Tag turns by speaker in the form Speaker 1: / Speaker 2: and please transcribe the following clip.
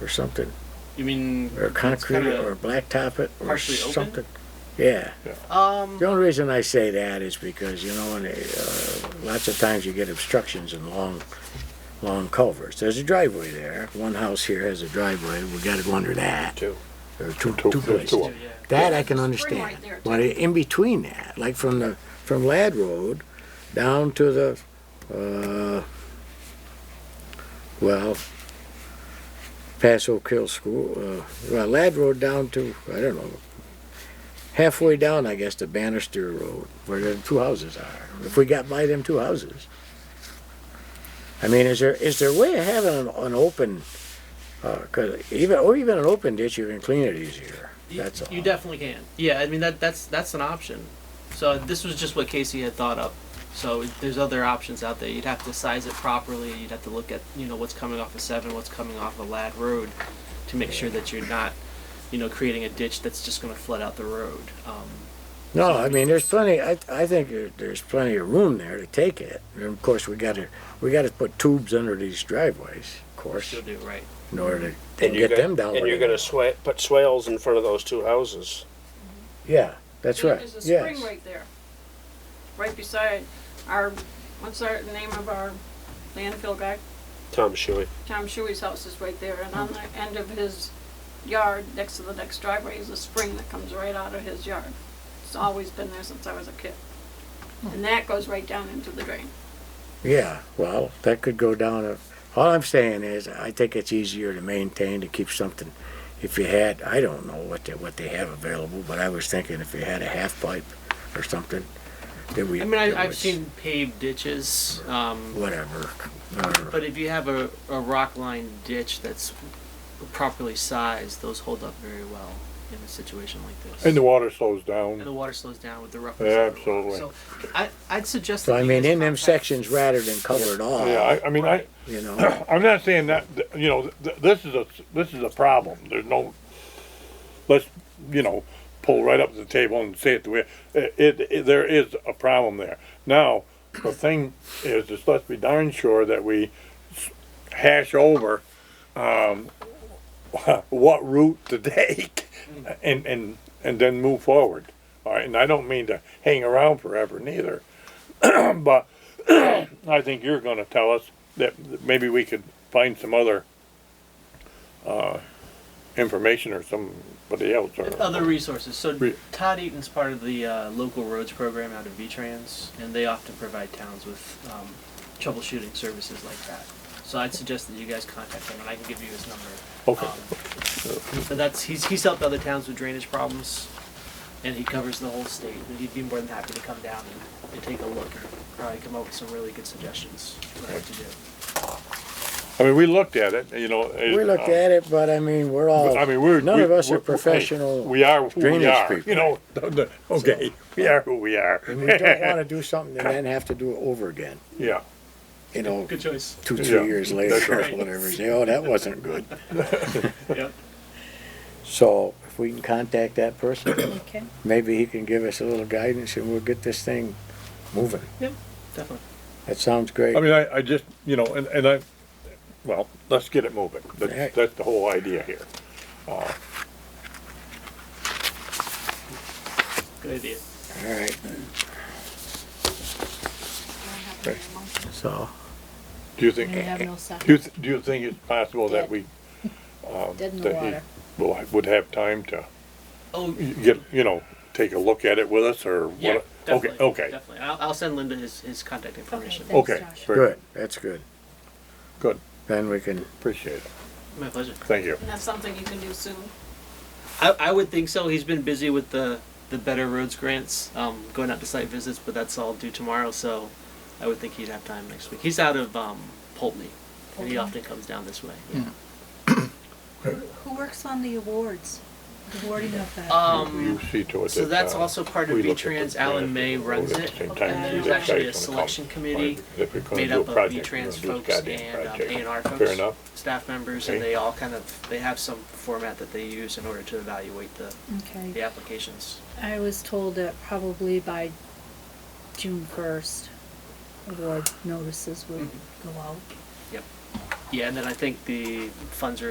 Speaker 1: or something,
Speaker 2: You mean
Speaker 1: or concrete it,
Speaker 2: kinda
Speaker 1: or blacktop it or
Speaker 2: partially open?
Speaker 1: something. Yeah.
Speaker 2: um
Speaker 1: The only reason I say that is because, you know, in a, uh, lots of times you get obstructions in long, long culverts. There's a driveway there. One house here has a driveway. We gotta go under that.
Speaker 3: Two.
Speaker 1: There are two,
Speaker 3: Two-
Speaker 1: two
Speaker 3: there's
Speaker 1: places.
Speaker 3: two of 'em.
Speaker 2: yeah.
Speaker 1: That I can
Speaker 4: Spring
Speaker 1: understand.
Speaker 4: right there,
Speaker 1: But in between that, like from the, from Lad Road down to the, uh, well, past Oak Hill School, uh, well, Lad Road down to, I don't know, halfway down, I guess, to Bannister Road, where the two houses are. If we got by them two houses. I mean, is there, is there a way of having an, an open, uh 'cause even, or even an open ditch, you can clean it easier?
Speaker 2: You-
Speaker 1: That's all.
Speaker 2: You definitely can. Yeah, I mean that that's that's an option. So this was just what Casey had thought up. So there's other options out there. You'd have to size it properly. You'd have to look at you know what's coming off of seven, what's coming off of Lad Road, to make sure that you're not, you know, creating a ditch that's just going to flood out the road. Um,
Speaker 1: No, I mean, there's plenty, I, I think there- there's plenty of room there to take it. And of course, we gotta, we gotta put tubes under these driveways, of course,
Speaker 2: you'll do it right.
Speaker 1: in order to
Speaker 3: And you're
Speaker 1: get them
Speaker 3: gonna-
Speaker 1: down.
Speaker 3: And
Speaker 1: where
Speaker 3: you're
Speaker 1: they-
Speaker 3: gonna sway, put swales in front of those two houses.
Speaker 1: Yeah, that's right,
Speaker 4: There's a spring
Speaker 1: yes.
Speaker 4: right there, right beside our, what's our, the name of our landfill guy?
Speaker 3: Tom Shuey.
Speaker 4: Tom Shuey's house is right there, and on
Speaker 1: Mm-hmm.
Speaker 4: the end of his yard, next to the next driveway, is a spring that comes right out of his yard. It's always been there since I was a kid. And
Speaker 1: Mm.
Speaker 4: that goes right down into the drain.
Speaker 1: Yeah, well, that could go down a, all I'm saying is, I think it's easier to maintain, to keep something. If you had, I don't know what they, what they have available, but I was thinking if you had a half pipe or something, that we.
Speaker 2: I mean, I,
Speaker 1: that
Speaker 2: I've
Speaker 1: was
Speaker 2: seen paved ditches. Um,
Speaker 1: Whatever, or-
Speaker 2: But if you have a, a rock line ditch that's properly sized, those hold up very well in a situation like this.
Speaker 5: And the water slows
Speaker 2: And the
Speaker 5: down.
Speaker 2: water slows down with the roughness.
Speaker 5: Yeah,
Speaker 2: of the water.
Speaker 5: absolutely.
Speaker 2: So I, I'd suggest.
Speaker 1: So
Speaker 2: that
Speaker 1: I
Speaker 2: you
Speaker 1: mean,
Speaker 2: guys
Speaker 1: in them
Speaker 2: contact-
Speaker 1: sections rather than cover it all,
Speaker 5: Yeah, I, I mean, I,
Speaker 1: you know,
Speaker 5: I'm not saying that, th- you know, th- this is a, this is a problem. There's no, let's, you know, pull right up to the table and say it the way, it, it, there is a problem there. Now, the thing is, is let's be darn sure that we s- hash over, um, what route to take and, and, and then move forward. All right, and I don't mean to hang around forever neither, but I think you're gonna tell us that that maybe we could find some other, uh, information or somebody else or.
Speaker 2: Other resources. So
Speaker 5: Re-
Speaker 2: Todd Eaton's part of the uh, local roads program out of V-Trans, and they often provide towns with um, troubleshooting services like that. So I'd suggest that you guys contact him, and I can give you his number.
Speaker 5: Okay.
Speaker 2: Um, But that's, he's, he's helped other towns with drainage problems, and he covers the whole state, and he'd be more than happy to come down and, and take a look, and probably come up with some really good suggestions for what to do.
Speaker 5: I mean, we looked at it, you know.
Speaker 1: we looked at it, but I mean, we're all,
Speaker 5: uh, I mean, we're.
Speaker 1: none
Speaker 5: we-
Speaker 1: of us
Speaker 5: we're-
Speaker 1: are
Speaker 5: hey,
Speaker 1: professional.
Speaker 5: We are who we
Speaker 1: drainage
Speaker 5: are,
Speaker 1: people.
Speaker 5: you know, the- the- okay, we are who we are.
Speaker 1: And we don't wanna do something and then have to do it over again,
Speaker 5: Yeah,
Speaker 1: you know,
Speaker 2: Good choice.
Speaker 1: two,
Speaker 5: Yeah,
Speaker 1: three years
Speaker 5: that's
Speaker 1: later or
Speaker 2: right.
Speaker 1: whatever, say, oh, that wasn't good.
Speaker 2: Yep.
Speaker 1: So if we can contact that person, maybe he can give us a little guidance and we'll get this thing moving.
Speaker 2: Yep, definitely.
Speaker 1: That sounds great.
Speaker 5: I mean, I, I just, you know, and, and I, well, let's get it moving.
Speaker 1: Right.
Speaker 5: That's, that's the whole idea here.
Speaker 2: Good idea.
Speaker 1: All right, so,
Speaker 5: Do you
Speaker 6: And we
Speaker 5: think,
Speaker 6: have no
Speaker 5: do you,
Speaker 6: second,
Speaker 5: th- do you think it's possible that we,
Speaker 6: dead in the
Speaker 5: that he
Speaker 6: water.
Speaker 5: will, would have time to
Speaker 2: Oh,
Speaker 5: get, you know, take a look at it with us or what?
Speaker 2: yeah,
Speaker 5: Okay,
Speaker 2: definitely,
Speaker 5: okay,
Speaker 2: Definitely. I'll, I'll send Linda his, his contact information.
Speaker 6: thank-
Speaker 5: okay.
Speaker 6: Josh.
Speaker 5: very
Speaker 1: good, that's good.
Speaker 5: Good,
Speaker 1: Then we can,
Speaker 5: appreciate it.
Speaker 2: My pleasure.
Speaker 5: Thank you.
Speaker 4: And that's something you can do soon.
Speaker 2: I, I would think so. He's been busy with the, the Better Roads grants, um, going out to site visits, but that's all due tomorrow, so I would think he'd have time next week. He's out of um, Poultney, and he
Speaker 6: Poultney.
Speaker 2: often comes down this way. Yeah.
Speaker 6: Who works on the awards, the awarding of that?
Speaker 5: You
Speaker 2: Um,
Speaker 5: see to it
Speaker 2: so
Speaker 5: that,
Speaker 2: that's
Speaker 5: uh,
Speaker 2: also part of
Speaker 5: we look at the
Speaker 2: V-Trans. Alan
Speaker 5: grant
Speaker 2: May
Speaker 5: and
Speaker 2: runs
Speaker 5: vote at
Speaker 2: it,
Speaker 5: the same
Speaker 2: and
Speaker 5: time to do
Speaker 2: there's
Speaker 5: that
Speaker 2: actually a
Speaker 5: guy's gonna come.
Speaker 2: selection committee
Speaker 5: If we're gonna
Speaker 2: made
Speaker 5: do a
Speaker 2: up of
Speaker 5: project,
Speaker 2: V-Trans
Speaker 5: we're gonna do
Speaker 2: folks
Speaker 5: this goddamn
Speaker 2: and um,
Speaker 5: project.
Speaker 2: A&R
Speaker 5: Fair
Speaker 2: folks,
Speaker 5: enough.
Speaker 2: staff members, and
Speaker 5: Okay.
Speaker 2: they all kind of, they have some format that they use in order to evaluate the, the
Speaker 6: Okay,
Speaker 2: applications.
Speaker 6: I was told that probably by June first, award notices would go out.
Speaker 2: Yeah, and then I think the funds are